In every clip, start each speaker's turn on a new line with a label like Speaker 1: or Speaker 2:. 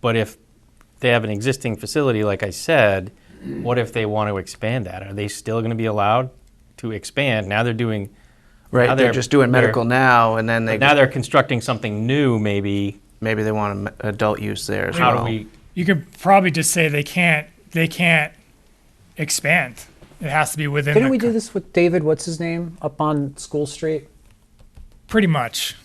Speaker 1: But if they have an existing facility, like I said, what if they want to expand that? Are they still going to be allowed to expand? Now they're doing,
Speaker 2: Right,
Speaker 1: Now
Speaker 2: they're,
Speaker 1: they're-
Speaker 2: just doing
Speaker 1: they're-
Speaker 2: medical now, and then they
Speaker 1: now they're constructing something new, maybe.
Speaker 2: maybe they want a me- adult use there as
Speaker 1: How
Speaker 2: well.
Speaker 1: do we,
Speaker 3: You could probably just say they can't, they can't expand. It has to be within.
Speaker 4: Didn't
Speaker 3: the
Speaker 4: we do
Speaker 3: co-
Speaker 4: this with David? What's his name up on School Street?
Speaker 3: Pretty much.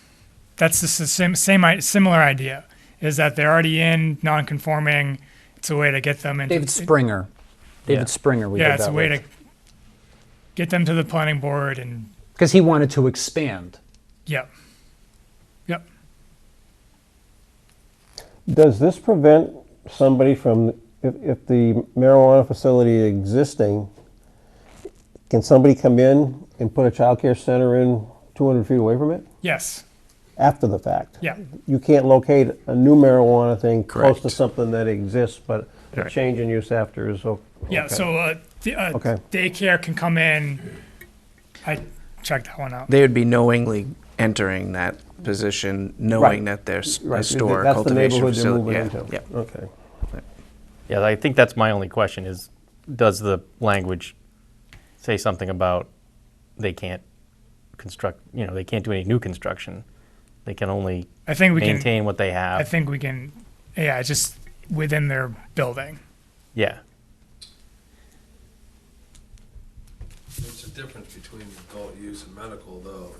Speaker 3: That's the s- same, same, i- similar idea, is that they're already in non-conforming. It's a way to get them into.
Speaker 4: David Springer. David Springer. We
Speaker 3: Yeah,
Speaker 4: did
Speaker 3: it's a
Speaker 4: that
Speaker 3: way to get them to the planning board and,
Speaker 4: because he wanted to expand.
Speaker 3: yep. Yep.
Speaker 5: Does this prevent somebody from, if, if the marijuana facility is existing, can somebody come in and put a childcare center in 200 feet away from it
Speaker 3: Yes.
Speaker 5: after the fact?
Speaker 3: Yeah.
Speaker 5: You can't locate a new marijuana thing close to
Speaker 2: Correct.
Speaker 5: something that exists, but a
Speaker 2: Right.
Speaker 5: change in use after is okay.
Speaker 3: Yeah. So uh, the, uh,
Speaker 5: Okay.
Speaker 3: daycare can come in. I checked that one out.
Speaker 2: they would be knowingly entering that position, knowing
Speaker 5: Right.
Speaker 2: that there's
Speaker 5: Right,
Speaker 2: a store,
Speaker 5: that's the
Speaker 2: cultivation
Speaker 5: neighborhood they're
Speaker 2: facility.
Speaker 5: moving
Speaker 2: yeah,
Speaker 5: into.
Speaker 2: yeah.
Speaker 5: Okay.
Speaker 1: yeah, I think that's my only question is, does the language say something about they can't construct, you know, they can't do any new construction? They can only
Speaker 3: I think we can,
Speaker 1: maintain what they
Speaker 3: I
Speaker 1: have.
Speaker 3: think we can, yeah, it's just within their building.
Speaker 1: Yeah.
Speaker 6: There's a difference between adult use and medical, though,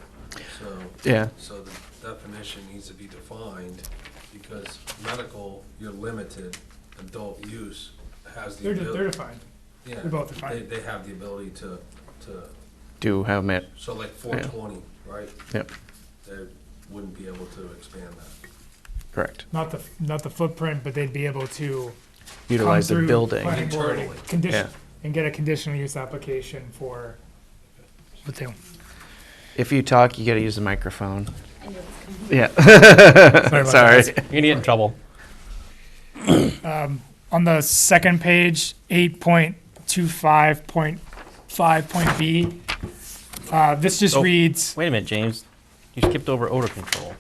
Speaker 6: so,
Speaker 2: Yeah.
Speaker 6: so the definition needs to be defined, because medical, you're limited, adult use has the
Speaker 3: They're,
Speaker 6: ability.
Speaker 3: they're defined.
Speaker 6: Yeah,
Speaker 3: they're both defined.
Speaker 6: They, they have the ability to, to,
Speaker 2: Do have it.
Speaker 6: so like four twenty, right?
Speaker 2: Yep.
Speaker 6: They wouldn't be able to expand that.
Speaker 2: Correct.
Speaker 3: Not the, not the footprint, but they'd be able to come
Speaker 2: Utilize the
Speaker 3: through
Speaker 2: building.
Speaker 3: planning board and
Speaker 6: Internally.
Speaker 3: Condition,
Speaker 2: Yeah.
Speaker 3: and get a conditional use application for, what they,
Speaker 2: If you talk, you got to use the microphone. Yeah.
Speaker 3: sorry about
Speaker 2: Sorry.
Speaker 3: that.
Speaker 1: You're going to get in trouble.
Speaker 3: On the second page, eight point two five point five point B, uh, this just
Speaker 1: Oh.
Speaker 3: reads,
Speaker 1: Wait a minute, James. You skipped over odor control.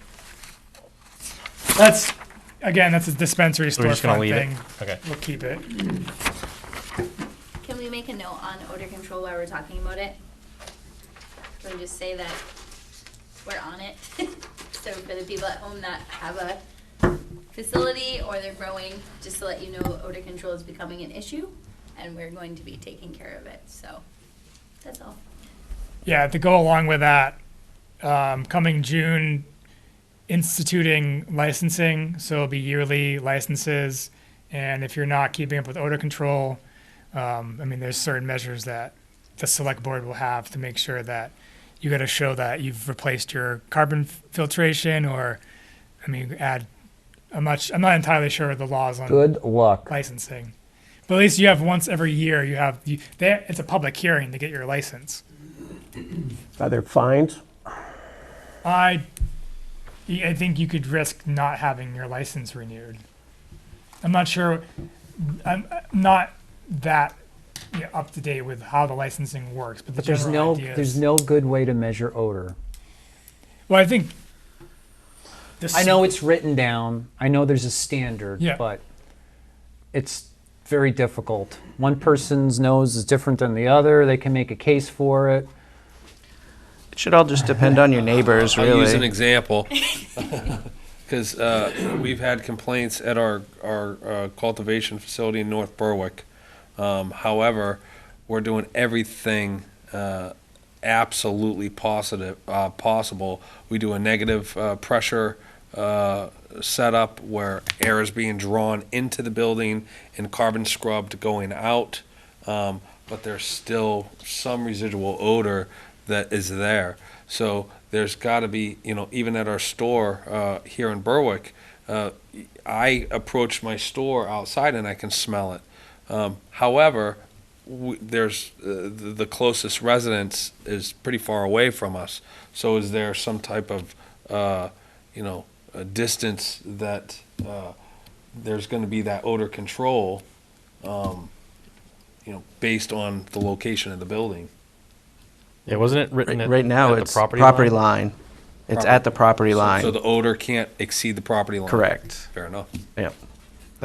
Speaker 3: that's, again, that's a dispensary
Speaker 1: So we're just going to
Speaker 3: storefront
Speaker 1: leave
Speaker 3: thing.
Speaker 1: it. Okay.
Speaker 3: We'll keep it.
Speaker 7: Can we make a note on odor control while we're talking about it? Can we just say that we're on it? So for the people at home that have a facility or they're growing, just to let you know, odor control is becoming an issue and we're going to be taking care of it, so that's all.
Speaker 3: Yeah, to go along with that, um, coming June, instituting licensing, so it'll be yearly licenses. And if you're not keeping up with odor control, um, I mean, there's certain measures that the select board will have to make sure that you got to show that you've replaced your carbon f- filtration or, I mean, add a much, I'm not entirely sure of the laws on
Speaker 4: Good luck.
Speaker 3: licensing. But at least you have once every year, you have, you, they, it's a public hearing to get your license.
Speaker 5: Are there fines?
Speaker 3: I, I think you could risk not having your license renewed. I'm not sure. I'm I'm not that yeah, up to date with how the licensing works, but the
Speaker 4: But there's
Speaker 3: general
Speaker 4: no
Speaker 3: idea
Speaker 4: there's
Speaker 3: is-
Speaker 4: no good way to measure odor.
Speaker 3: well, I think. This,
Speaker 4: I know it's written down. I know there's a standard,
Speaker 3: Yeah.
Speaker 4: but it's very difficult. One person's nose is different than the other. They can make a case for it.
Speaker 2: It should all just depend on your neighbors,
Speaker 6: I'll use an
Speaker 2: really.
Speaker 6: example. Because uh, we've had complaints at our, our uh, cultivation facility in North Berwick. Um, however, we're doing everything uh, absolutely positive, uh, possible. We do a negative uh, pressure uh, setup where air is being drawn into the building and carbon scrubbed going out. Um, but there's still some residual odor that is there. So there's got to be, you know, even at our store uh, here in Berwick, uh, I approach my store outside and I can smell it. Um, however, w- there's uh, the the closest residence is pretty far away from us. So is there some type of, uh, you know, a distance that uh, there's going to be that odor control, um, you know, based on the location of the building?
Speaker 1: Yeah, wasn't it written
Speaker 2: Right
Speaker 1: at,
Speaker 2: right now,
Speaker 1: at the
Speaker 2: it's property line. It's at the property
Speaker 6: So
Speaker 2: line.
Speaker 6: the odor can't exceed the property line.
Speaker 2: Correct.
Speaker 6: Fair enough.
Speaker 2: Yep.